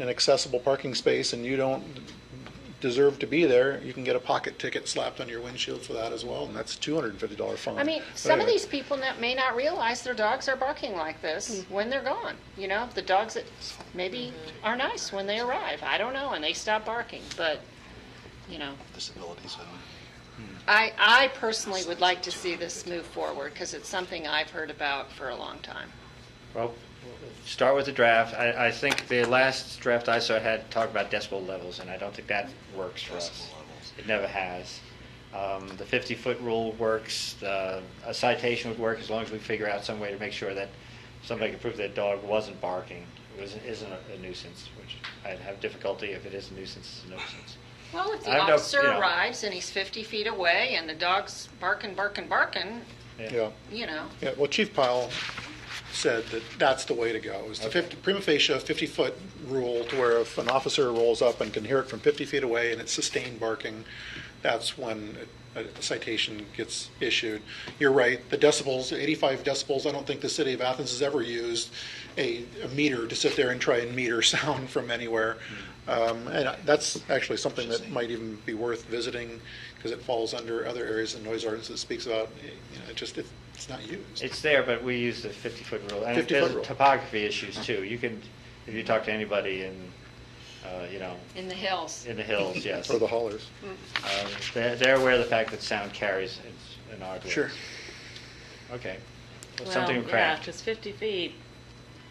an accessible parking space and you don't deserve to be there, you can get a pocket ticket slapped on your windshield for that as well, and that's a two hundred and fifty dollar fine. I mean, But some of anyway. these people not, may not realize their dogs are barking like this when they're gone. You know, the dogs that maybe are nice when they arrive. I don't know, and they stop barking. But you know, disabilities and I I personally would like to see this move forward because it's something I've heard about for a long time. Well, start with the draft. I, I think the last draft I saw had talked about decibel levels, and I don't think that works for us. Decibel levels. It never has. Um, the 50-foot rule works, the, a citation would work as long as we figure out some way to make sure that somebody can prove that dog wasn't barking, was, isn't a nuisance, which I'd have difficulty if it is a nuisance, it's a nuisance. Well, if the I don't- officer yeah. arrives and he's 50 feet away and the dog's barking, barking, barking, Yeah, you know, yeah, well, Chief Pyle said that that's the way to go, is the Okay. fifty, prima facie fifty-foot rule to where if an officer rolls up and can hear it from fifty feet away and it's sustained barking, that's when a a citation gets issued. You're right, the decibels, eighty-five decibels, I don't think the city of Athens has ever used a a meter to sit there and try and meter sound from anywhere. Um, And I- that's actually something that might even be worth visiting, because it falls under other areas of noise ordinance that speaks about, you know, it just, it- it's not used. It's there, but we use the 50-foot rule. And 50-foot rule. there's topography issues, too. You can, if you talk to anybody in, uh, you know, in the hills. Hmm. in the hills, yes. Or the haulers. Mm. Uh, They're they're aware of the fact that sound carries its- an argument. Sure. Okay. Well, Well, Something to yeah, craft. because 50 feet,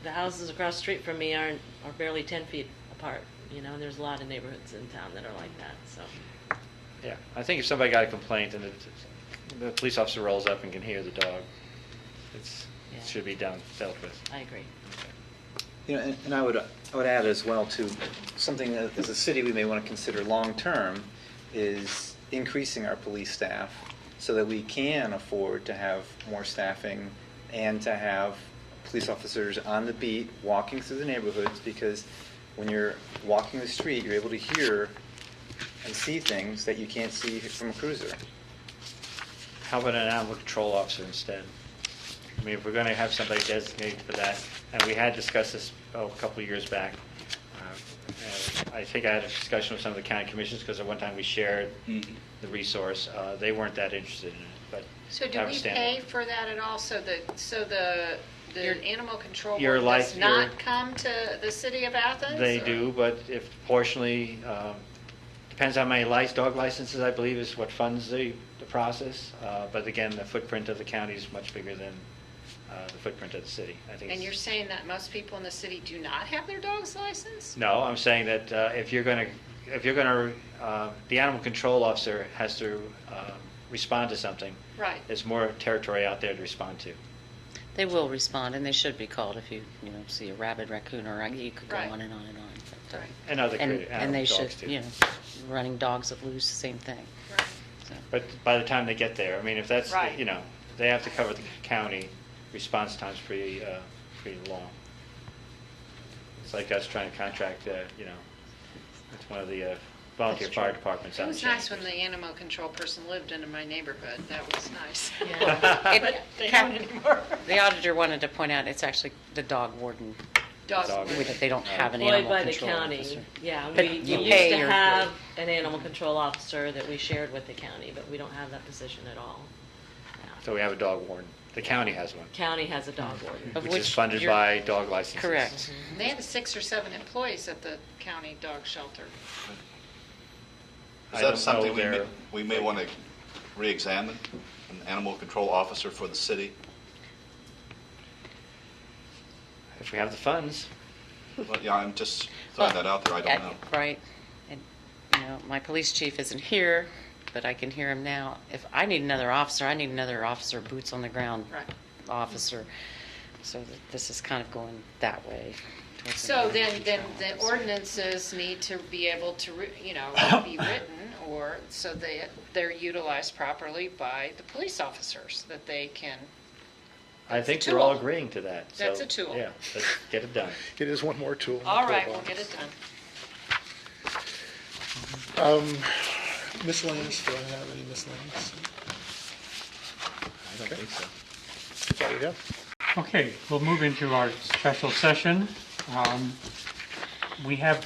the houses across the street from me aren't, are barely 10 feet apart, you know, and there's a lot of neighborhoods in town that are like that, so. Yeah, I think if somebody got a complaint and the, the police officer rolls up and can hear the dog, it's, Yeah. it should be done, dealt with. I agree. You know, and, and I would, I would add as well to something that as a city we may want to consider long-term is increasing our police staff so that we can afford to have more staffing and to have police officers on the beat, walking through the neighborhoods, because when you're walking the street, you're able to hear and see things that you can't see from a cruiser. How about an animal control officer instead? I mean, if we're gonna have somebody designated for that, and we had discussed this, oh, a couple of years back. uh, and I think I had a discussion with some of the county commissions, because at one time we shared the resource, uh, they weren't that interested in it, but. So do have a we standard. pay for that at all, so the, so the, Your- the animal control your board life- does your- not come to the city of Athens? They or- do, but if proportionally, um, depends on my lic, dog licenses, I believe, is what funds the, the process. Uh, But again, the footprint of the county is much bigger than uh, the footprint of the city. I think. And it's- you're saying that most people in the city do not have their dog's license? No, I'm saying that uh, if you're going to, if you're going to, the animal control officer has to um, respond to something. Right. There's more territory out there to respond to. They will respond, and they should be called if you, you know, see a rabid raccoon or, a- you could go Right. on and on and on. But, uh, Right. And other And, creative and animal they should, dogs, too. you know, running dogs that lose, same thing. Right. So, But by the time they get there, I mean, if that's, Right. you know, they have to cover the county, response time's pretty, uh, pretty long. It's like us trying to contract, uh, you know, it's one of the uh, volunteer That's fire true. departments out It in was nice when Shandaken. the animal control person lived in my neighborhood, that was nice. It- They don't anymore. The auditor wanted to point out, it's actually the dog warden, Dogs Dog. Uh, were- with it. they don't have an Employed animal by the control county, officer. yeah, But we you we pay used to your- have an animal control officer that we shared with the county, but we don't have that position at all. now. So we have a dog warden. The county has one, County has a dog warden. Of which is which funded you're- by dog licenses. Correct. They had six or seven employees at the county dog shelter. I Is don't know that something we may, their- we may want to reexamine, an animal control officer for the city? If we have the funds. Well, yeah, I'm just throwing that out there, I don't Well, know. at- Right. And, you know, my police chief isn't here, but I can hear him now. If I need another officer, I need another officer, boots on the ground Right. officer. So th- this is kind of going that way. towards the So animal then, then control the officer. ordinances need to be able to, re- you know, be written or so they, they're utilized properly by the police officers, that they can, I That's a think we're all tool. agreeing to that. so, That's a tool. Yeah, let's get it done. It is one more tool. in the all right, we'll toolbox. get it done. Miscellaneous, do I have any miscellaneous? I don't think so. That's all you have? Okay, we'll move into our special session. Um, we have